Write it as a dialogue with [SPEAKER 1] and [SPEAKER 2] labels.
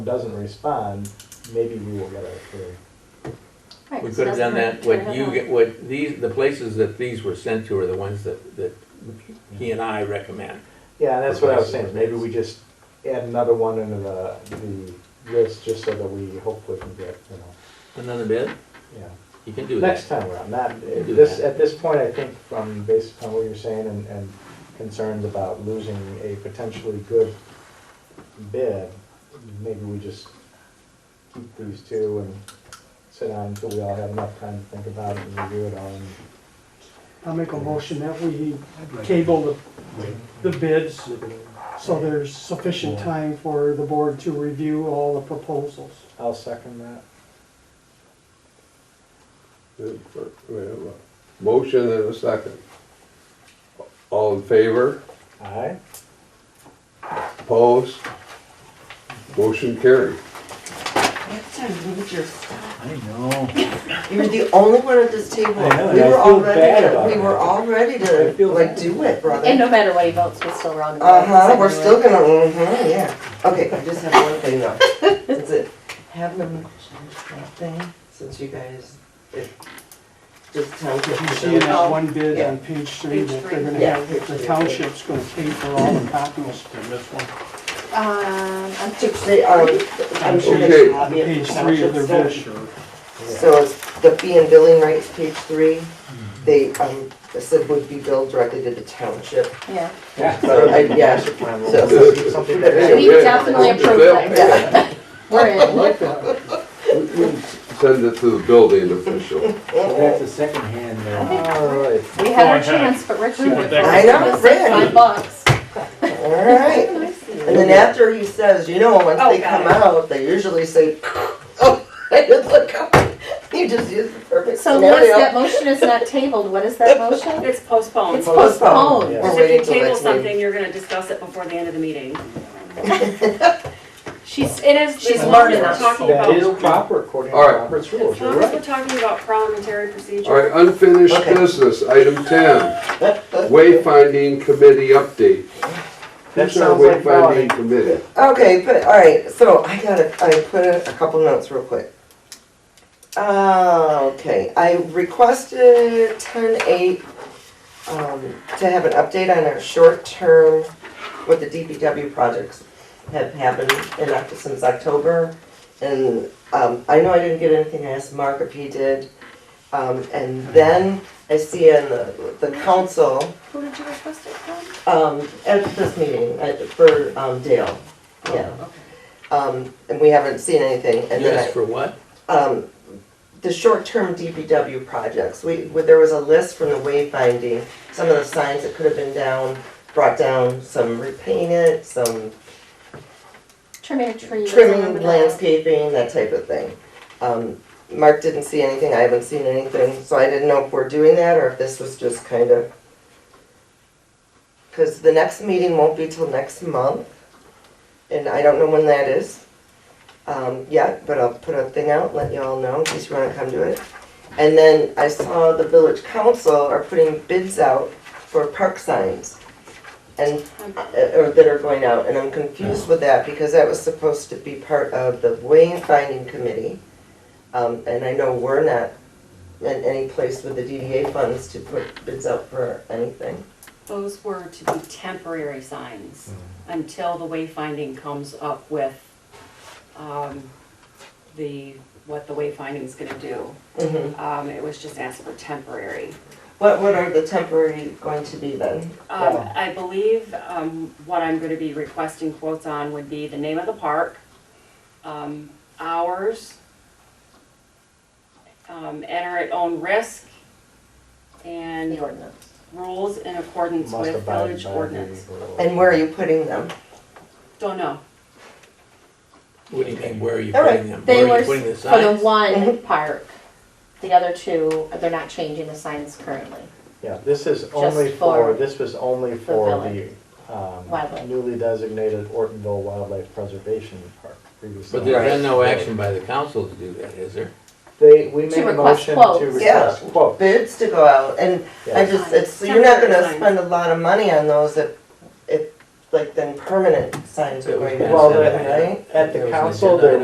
[SPEAKER 1] doesn't respond, maybe we will get our three.
[SPEAKER 2] Right,
[SPEAKER 3] We
[SPEAKER 2] so
[SPEAKER 3] could
[SPEAKER 2] that's
[SPEAKER 3] have done
[SPEAKER 2] what
[SPEAKER 3] that,
[SPEAKER 2] we
[SPEAKER 3] what
[SPEAKER 2] could've
[SPEAKER 3] you
[SPEAKER 2] done.
[SPEAKER 3] get, what these, the places that these were sent to are the ones that, that he and I recommend.
[SPEAKER 1] Yeah, and that's what I was saying, maybe we just add another one into the, the list, just so that we hopefully can get, you know,
[SPEAKER 3] Another bid,
[SPEAKER 1] yeah.
[SPEAKER 3] you can do
[SPEAKER 1] Next
[SPEAKER 3] that.
[SPEAKER 1] time around, not,
[SPEAKER 3] can do
[SPEAKER 1] this,
[SPEAKER 3] that.
[SPEAKER 1] at this point, I think from, based upon what you're saying and, and concerns about losing a potentially good bid, maybe we just keep these two and sit down until we all have enough time to think about it and review it all and
[SPEAKER 4] I'll make a motion that we table the, the bids so there's sufficient time for the board to review all the proposals.
[SPEAKER 1] I'll second that.
[SPEAKER 5] We have a Motion and a second. All in favor?
[SPEAKER 1] Aye?
[SPEAKER 5] Opposed? Motion carried.
[SPEAKER 6] That's a major stop.
[SPEAKER 7] I know.
[SPEAKER 6] You're the only one at this table.
[SPEAKER 1] I know, and
[SPEAKER 6] We
[SPEAKER 1] I
[SPEAKER 6] were
[SPEAKER 1] feel
[SPEAKER 6] all ready
[SPEAKER 1] bad
[SPEAKER 6] to,
[SPEAKER 1] about
[SPEAKER 6] we
[SPEAKER 1] it.
[SPEAKER 6] were all ready
[SPEAKER 1] I
[SPEAKER 6] to,
[SPEAKER 1] feel
[SPEAKER 6] like,
[SPEAKER 1] bad.
[SPEAKER 6] do it,
[SPEAKER 2] And
[SPEAKER 6] brother.
[SPEAKER 2] no matter what he votes, we're still round. and round,
[SPEAKER 6] Uh-huh, we're
[SPEAKER 2] so
[SPEAKER 6] still gonna, mm-hmm, yeah. Okay, I just have one thing though. That's it. Have them change that thing, since you guys, if, just tell
[SPEAKER 4] If you
[SPEAKER 6] people.
[SPEAKER 4] see in that one bid on page three, that they're gonna
[SPEAKER 6] Yeah.
[SPEAKER 4] have, the township's gonna pay for all the copies.
[SPEAKER 2] Um, I'm too.
[SPEAKER 6] Just say, um, I'm sure they
[SPEAKER 5] Okay.
[SPEAKER 6] should
[SPEAKER 4] On
[SPEAKER 6] have it.
[SPEAKER 4] page three of their bid.
[SPEAKER 6] So it's the fee and billing rates, page three, they, um, said would be billed directly to the township.
[SPEAKER 2] Yeah,
[SPEAKER 1] Yeah.
[SPEAKER 6] So, I- yeah.
[SPEAKER 1] So, something that-
[SPEAKER 2] we definitely approve that.
[SPEAKER 6] Yeah.
[SPEAKER 2] We're in.
[SPEAKER 4] Like that.
[SPEAKER 5] We- we Send it to the building official.
[SPEAKER 1] Oh,
[SPEAKER 7] That's a second hand
[SPEAKER 1] uh,
[SPEAKER 7] there.
[SPEAKER 1] All right.
[SPEAKER 2] We had
[SPEAKER 8] Go
[SPEAKER 2] our
[SPEAKER 8] ahead.
[SPEAKER 2] chance, but Rick ruined it. for
[SPEAKER 8] I
[SPEAKER 2] us.
[SPEAKER 6] know,
[SPEAKER 2] It was
[SPEAKER 6] Rick.
[SPEAKER 2] Five bucks.
[SPEAKER 6] All right. And then after he says, you know, once they come out, they usually say, oh, I did look up. You just used the perfect
[SPEAKER 2] So Liz, that
[SPEAKER 6] scenario.
[SPEAKER 2] motion is not tabled. What is that motion?
[SPEAKER 9] It's postponed.
[SPEAKER 2] It's
[SPEAKER 9] So
[SPEAKER 2] postponed.
[SPEAKER 1] Yeah.
[SPEAKER 6] We're waiting
[SPEAKER 9] if you
[SPEAKER 6] till
[SPEAKER 9] table
[SPEAKER 6] next meeting.
[SPEAKER 9] something, you're gonna discuss it before the end of the meeting.
[SPEAKER 2] She's, it is, she's
[SPEAKER 9] As long
[SPEAKER 2] learning
[SPEAKER 9] as we're
[SPEAKER 2] us.
[SPEAKER 9] talking
[SPEAKER 1] That
[SPEAKER 9] about-
[SPEAKER 1] is proper according to
[SPEAKER 5] All right.
[SPEAKER 1] Robert's rules,
[SPEAKER 9] As
[SPEAKER 1] you're
[SPEAKER 9] long as we're
[SPEAKER 1] right.
[SPEAKER 9] talking about parliamentary
[SPEAKER 5] All right, uh,
[SPEAKER 9] procedure,
[SPEAKER 5] unfinished
[SPEAKER 6] Okay.
[SPEAKER 5] business, item ten. Wayfinding committee update.
[SPEAKER 1] That
[SPEAKER 5] Who's our
[SPEAKER 1] sounds like Melanie.
[SPEAKER 5] Wayfinding committee.
[SPEAKER 6] Okay, but, all right, so I gotta, I put in a couple notes real quick. Uh, okay, I requested ten eight, um, to have an update on our short term, what the DPW projects have happened in, Oct- since October. And, um, I know I didn't get anything, I asked Mark if he did. Um, and then I see in the, the council,
[SPEAKER 9] who did you request it from?
[SPEAKER 6] um, at this meeting, uh, for, um, Dale, yeah.
[SPEAKER 9] Okay.
[SPEAKER 6] Um, and we haven't seen anything, and
[SPEAKER 3] You asked
[SPEAKER 6] then
[SPEAKER 3] for what?
[SPEAKER 6] I, um, the short-term DPW projects, we, we- there was a list from the wayfinding, some of the signs that could have been down, brought down, some repainted, some
[SPEAKER 2] Trimming a tree. that's on the
[SPEAKER 6] trimming,
[SPEAKER 2] back.
[SPEAKER 6] landscaping, that type of thing. Um, Mark didn't see anything, I haven't seen anything, so I didn't know if we're doing that, or if this was just kind of. Cause the next meeting won't be till next month, and I don't know when that is, um, yet, but I'll put a thing out, let you all know, in case you wanna come to it. And then I saw the village council are putting bids out for park signs. And, uh, or that are going out, and I'm confused with that because that was supposed to be part of the wayfinding committee. Um, and I know we're not in any place with the DDA funds to put bids out for anything.
[SPEAKER 9] Those were to be temporary signs until the wayfinding comes up with, um, the, what the wayfinding's gonna do.
[SPEAKER 6] Mhm.
[SPEAKER 9] Um, it was just asked for temporary.
[SPEAKER 6] What, what are the temporary going to be then?
[SPEAKER 9] Um, I believe, um, what I'm gonna be requesting quotes on would be the name of the park, um, hours, um, enter at own risk,
[SPEAKER 2] The
[SPEAKER 9] and
[SPEAKER 2] ordinance.
[SPEAKER 9] rules in accordance
[SPEAKER 1] Must
[SPEAKER 9] with
[SPEAKER 1] abide
[SPEAKER 9] village
[SPEAKER 1] by the
[SPEAKER 9] ordinance.
[SPEAKER 1] rules.
[SPEAKER 6] And where are you putting them?
[SPEAKER 9] Don't know.
[SPEAKER 3] What do you mean, where are you
[SPEAKER 6] All right,
[SPEAKER 3] putting them?
[SPEAKER 2] They
[SPEAKER 3] Where are
[SPEAKER 2] were
[SPEAKER 3] you putting the
[SPEAKER 2] s- for the
[SPEAKER 3] signs?
[SPEAKER 2] one
[SPEAKER 6] Mhm.
[SPEAKER 2] park. The other two, they're not changing the signs currently.
[SPEAKER 1] Yeah, this is only
[SPEAKER 2] Just
[SPEAKER 1] for,
[SPEAKER 2] for
[SPEAKER 1] this was only
[SPEAKER 2] the
[SPEAKER 1] for the
[SPEAKER 2] village.
[SPEAKER 1] um,
[SPEAKER 2] Wildlife.
[SPEAKER 1] newly designated Ortonville Wildlife Preservation Park. previously.
[SPEAKER 3] But there's been no action by the council to do that, is there?
[SPEAKER 1] They, we made a
[SPEAKER 2] request
[SPEAKER 1] motion
[SPEAKER 2] quotes.
[SPEAKER 1] to request quotes.
[SPEAKER 6] bids to go out, and I
[SPEAKER 1] Yeah.
[SPEAKER 6] just, it's, you're not gonna spend a lot of money on those if, if, like then permanent signs are
[SPEAKER 3] It was
[SPEAKER 6] going to
[SPEAKER 3] bad.
[SPEAKER 1] Well,
[SPEAKER 6] happen,
[SPEAKER 1] the-
[SPEAKER 6] right?
[SPEAKER 1] at
[SPEAKER 3] It
[SPEAKER 1] the
[SPEAKER 3] was
[SPEAKER 1] council,
[SPEAKER 3] legit.
[SPEAKER 1] there